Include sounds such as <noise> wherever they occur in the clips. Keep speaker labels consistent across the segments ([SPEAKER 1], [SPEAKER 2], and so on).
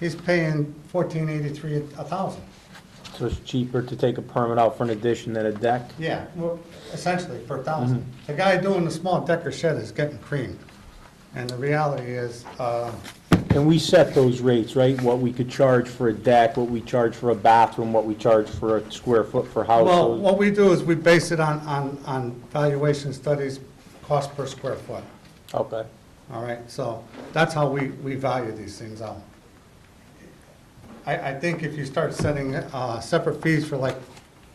[SPEAKER 1] he's paying fourteen eighty-three a thousand.
[SPEAKER 2] So it's cheaper to take a permit out for an addition than a deck?
[SPEAKER 1] Yeah, well, essentially per thousand. The guy doing the small decker shed is getting creamed. And the reality is, uh,
[SPEAKER 2] And we set those rates, right? What we could charge for a deck, what we charge for a bathroom, what we charge for a square foot for
[SPEAKER 1] well,
[SPEAKER 2] household.
[SPEAKER 1] what we do is we base it on, on, on valuation studies, cost per square foot.
[SPEAKER 2] Okay.
[SPEAKER 1] All right, so that's how we, we value these things out. I, I think if you start setting, uh, separate fees for like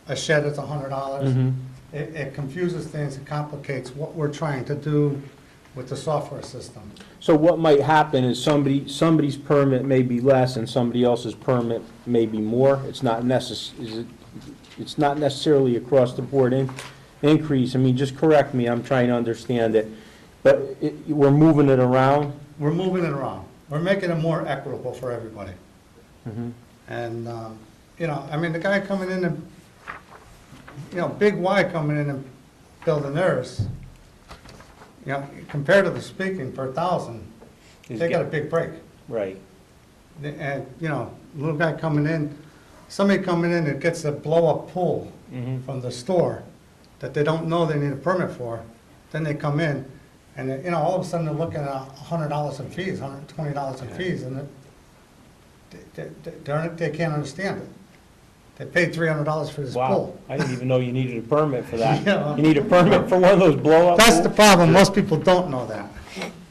[SPEAKER 1] a shed that's a hundred dollars,
[SPEAKER 2] Mhm.
[SPEAKER 1] it, it confuses things, it complicates what we're trying to do with the software system.
[SPEAKER 2] So what might happen is somebody, somebody's permit may be less and somebody else's permit may be more. It's not necess, is it, it's not necessarily across the board in, increase. I mean, just correct me, I'm trying to understand it. But it, we're moving it around?
[SPEAKER 1] We're moving it around. We're making it more equitable for everybody. Mm-hmm. And, um, you know, I mean, the guy coming in and, you know, Big Y coming in and building theirs, you know, comparatively speaking, per thousand,
[SPEAKER 2] Is
[SPEAKER 1] they got a
[SPEAKER 2] get-
[SPEAKER 1] big break.
[SPEAKER 2] Right.
[SPEAKER 1] And, uh, you know, little guy coming in, somebody coming in that gets a blow-up pool
[SPEAKER 2] Mhm.
[SPEAKER 1] from the store that they don't know they need a permit for, then they come in, and, they- you know, all of a sudden they're looking at a hundred dollars in fees, hundred and twenty dollars in fees, and it- they, they, they're- they can't understand it. They paid three hundred dollars for this
[SPEAKER 2] Wow,
[SPEAKER 1] pool.
[SPEAKER 2] I didn't even know you needed a permit for
[SPEAKER 1] <laughs> Yeah.
[SPEAKER 2] that. You need a permit for one of those blow-up
[SPEAKER 1] That's the
[SPEAKER 2] pools?
[SPEAKER 1] problem, most people don't know that.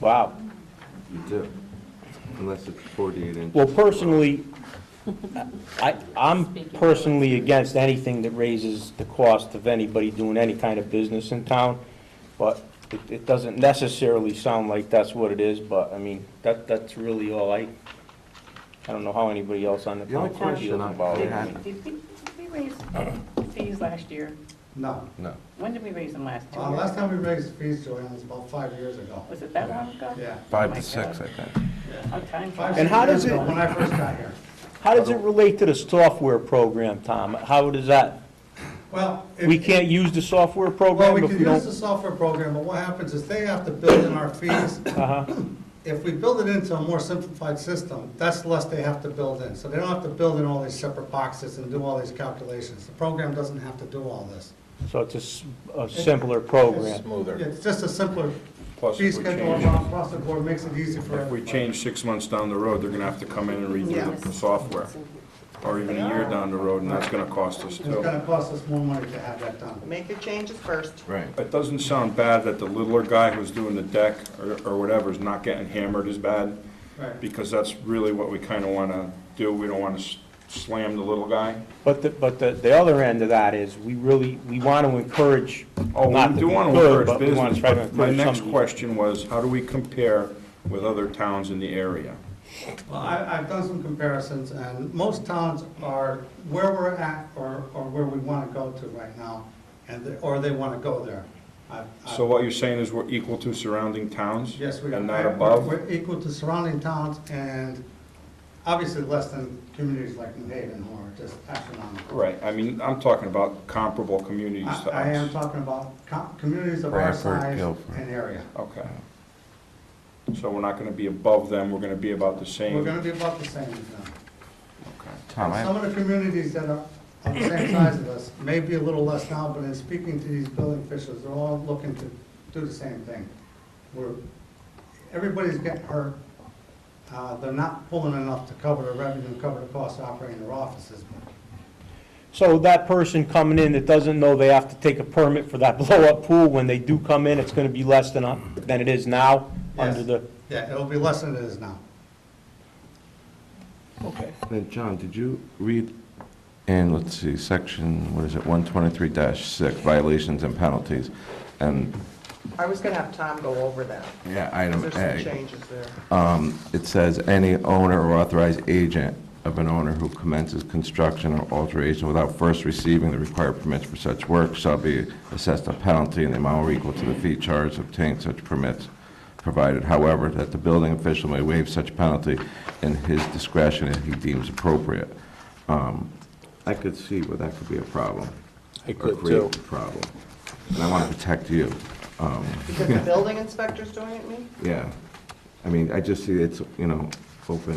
[SPEAKER 2] Wow.
[SPEAKER 3] You do, unless it's 48 inches.
[SPEAKER 2] Well, personally, I, I'm personally against anything that raises the cost of anybody doing any kind of business in town, but it, it doesn't necessarily sound like that's what it is, but, I mean, that, that's really all I, I don't know how anybody else on the
[SPEAKER 3] The only
[SPEAKER 2] council feels
[SPEAKER 3] question I-
[SPEAKER 2] about
[SPEAKER 3] I had-
[SPEAKER 2] it.
[SPEAKER 4] Did did we, did we raise fees last year?
[SPEAKER 1] No.
[SPEAKER 3] No.
[SPEAKER 4] When did we raise them last? Two
[SPEAKER 1] Uh,
[SPEAKER 4] years
[SPEAKER 1] last
[SPEAKER 4] ago?
[SPEAKER 1] time we raised fees, Joanne, was about five years ago.
[SPEAKER 4] Was it that long ago?
[SPEAKER 1] Yeah.
[SPEAKER 4] Oh
[SPEAKER 3] Five
[SPEAKER 4] my
[SPEAKER 3] to six, I
[SPEAKER 4] God.
[SPEAKER 3] think.
[SPEAKER 4] How time
[SPEAKER 1] Five,
[SPEAKER 4] flies.
[SPEAKER 2] And
[SPEAKER 1] six
[SPEAKER 2] how does
[SPEAKER 1] years ago,
[SPEAKER 2] it-
[SPEAKER 1] When I first got here.
[SPEAKER 2] How does it relate to the software program, Tom? How does that,
[SPEAKER 1] Well. if-
[SPEAKER 2] we can't use the software
[SPEAKER 1] Well, we
[SPEAKER 2] program if
[SPEAKER 1] can
[SPEAKER 2] we
[SPEAKER 1] use the
[SPEAKER 2] don't?
[SPEAKER 1] software program, but what happens is they have to build in our fees.
[SPEAKER 2] <coughs> Uh-huh.
[SPEAKER 1] If we build it into a more simplified system, that's less they have to build in. So they don't have to build in all these separate boxes and do all these calculations. The program doesn't have to do all this.
[SPEAKER 2] So it's a s- a simpler program.
[SPEAKER 5] Smoother.
[SPEAKER 1] It's just a simpler
[SPEAKER 5] Plus,
[SPEAKER 1] fee
[SPEAKER 5] if we
[SPEAKER 1] schedule
[SPEAKER 5] change,
[SPEAKER 1] across the board, makes it easy for
[SPEAKER 5] if we
[SPEAKER 1] everybody.
[SPEAKER 5] change six months down the road, they're gonna have to come in and redo the software. Or even a year down the road, and that's gonna cost us
[SPEAKER 1] It's
[SPEAKER 5] too.
[SPEAKER 1] gonna cost us more money to have that done.
[SPEAKER 6] Make your changes first.
[SPEAKER 3] Right.
[SPEAKER 5] It doesn't sound bad that the littler guy who's doing the deck or, or whatever is not getting hammered as bad,
[SPEAKER 1] Right.
[SPEAKER 5] because that's really what we kinda wanna do. We don't wanna s- slam the little guy.
[SPEAKER 2] But the, but the, the other end of that is, we really, we want to encourage,
[SPEAKER 5] Oh,
[SPEAKER 2] not
[SPEAKER 5] we
[SPEAKER 2] to
[SPEAKER 5] do
[SPEAKER 2] be
[SPEAKER 5] wanna
[SPEAKER 2] good,
[SPEAKER 5] encourage
[SPEAKER 2] but we want
[SPEAKER 5] business,
[SPEAKER 2] to try to
[SPEAKER 5] but my
[SPEAKER 2] encourage
[SPEAKER 5] next
[SPEAKER 2] somebody.
[SPEAKER 5] question was, how do we compare with other towns in the area?
[SPEAKER 1] Well, I, I've done some comparisons, and most towns are where we're at or, or where we wanna go to right now, and, they- or they wanna go there. I've- I've-
[SPEAKER 5] So what you're saying is we're equal to surrounding towns?
[SPEAKER 1] Yes, we are.
[SPEAKER 5] And not
[SPEAKER 1] We're-
[SPEAKER 5] above?
[SPEAKER 1] We're equal to surrounding towns and obviously less than communities like New Haven who are just astronomical.
[SPEAKER 5] Right, I mean, I'm talking about comparable communities to us.
[SPEAKER 1] I, I am talking about com- communities of our
[SPEAKER 3] Bradford,
[SPEAKER 1] size
[SPEAKER 3] Guilford.
[SPEAKER 1] and area.
[SPEAKER 5] Okay. So we're not gonna be above them, we're gonna be about the same?
[SPEAKER 1] We're gonna be about the same as them.
[SPEAKER 5] Okay.
[SPEAKER 3] Tom, I
[SPEAKER 1] Some of the communities that are of the same size as us may be a little less now, but in speaking to these building officials, they're all looking to do the same thing. We're, everybody's getting hurt. Uh, they're not pulling enough to cover the revenue, cover the cost of operating their offices.
[SPEAKER 2] So that person coming in that doesn't know they have to take a permit for that <laughs> blow-up pool, when they do come in, it's going to be less than, a- than it is now, under
[SPEAKER 1] Yes.
[SPEAKER 2] the,
[SPEAKER 1] Yeah, it'll be less than it is now.
[SPEAKER 2] okay.
[SPEAKER 3] Then, John, did you read in, let's see, section, what is it, 123-6, violations and penalties? And,
[SPEAKER 6] I was gonna have Tom go over that,
[SPEAKER 3] yeah,
[SPEAKER 6] 'cause
[SPEAKER 3] item
[SPEAKER 6] there's some
[SPEAKER 3] A.
[SPEAKER 6] changes there.
[SPEAKER 3] Um, It says, "Any owner or authorized agent of an owner who commences construction or alteration without first receiving the required permits for such work shall be assessed a penalty in the amount or equal to the fee charged to obtain such permits, provided, however, that the building official may waive such penalty in his discretion if he deems appropriate." Um, I could see where that could be a problem.
[SPEAKER 2] I
[SPEAKER 3] or
[SPEAKER 2] could,
[SPEAKER 3] create
[SPEAKER 2] too.
[SPEAKER 3] a Problem. And I want to protect you. Um,
[SPEAKER 6] Because the building inspector's doing it, me?
[SPEAKER 3] Yeah. I mean, I just see it's, you know, open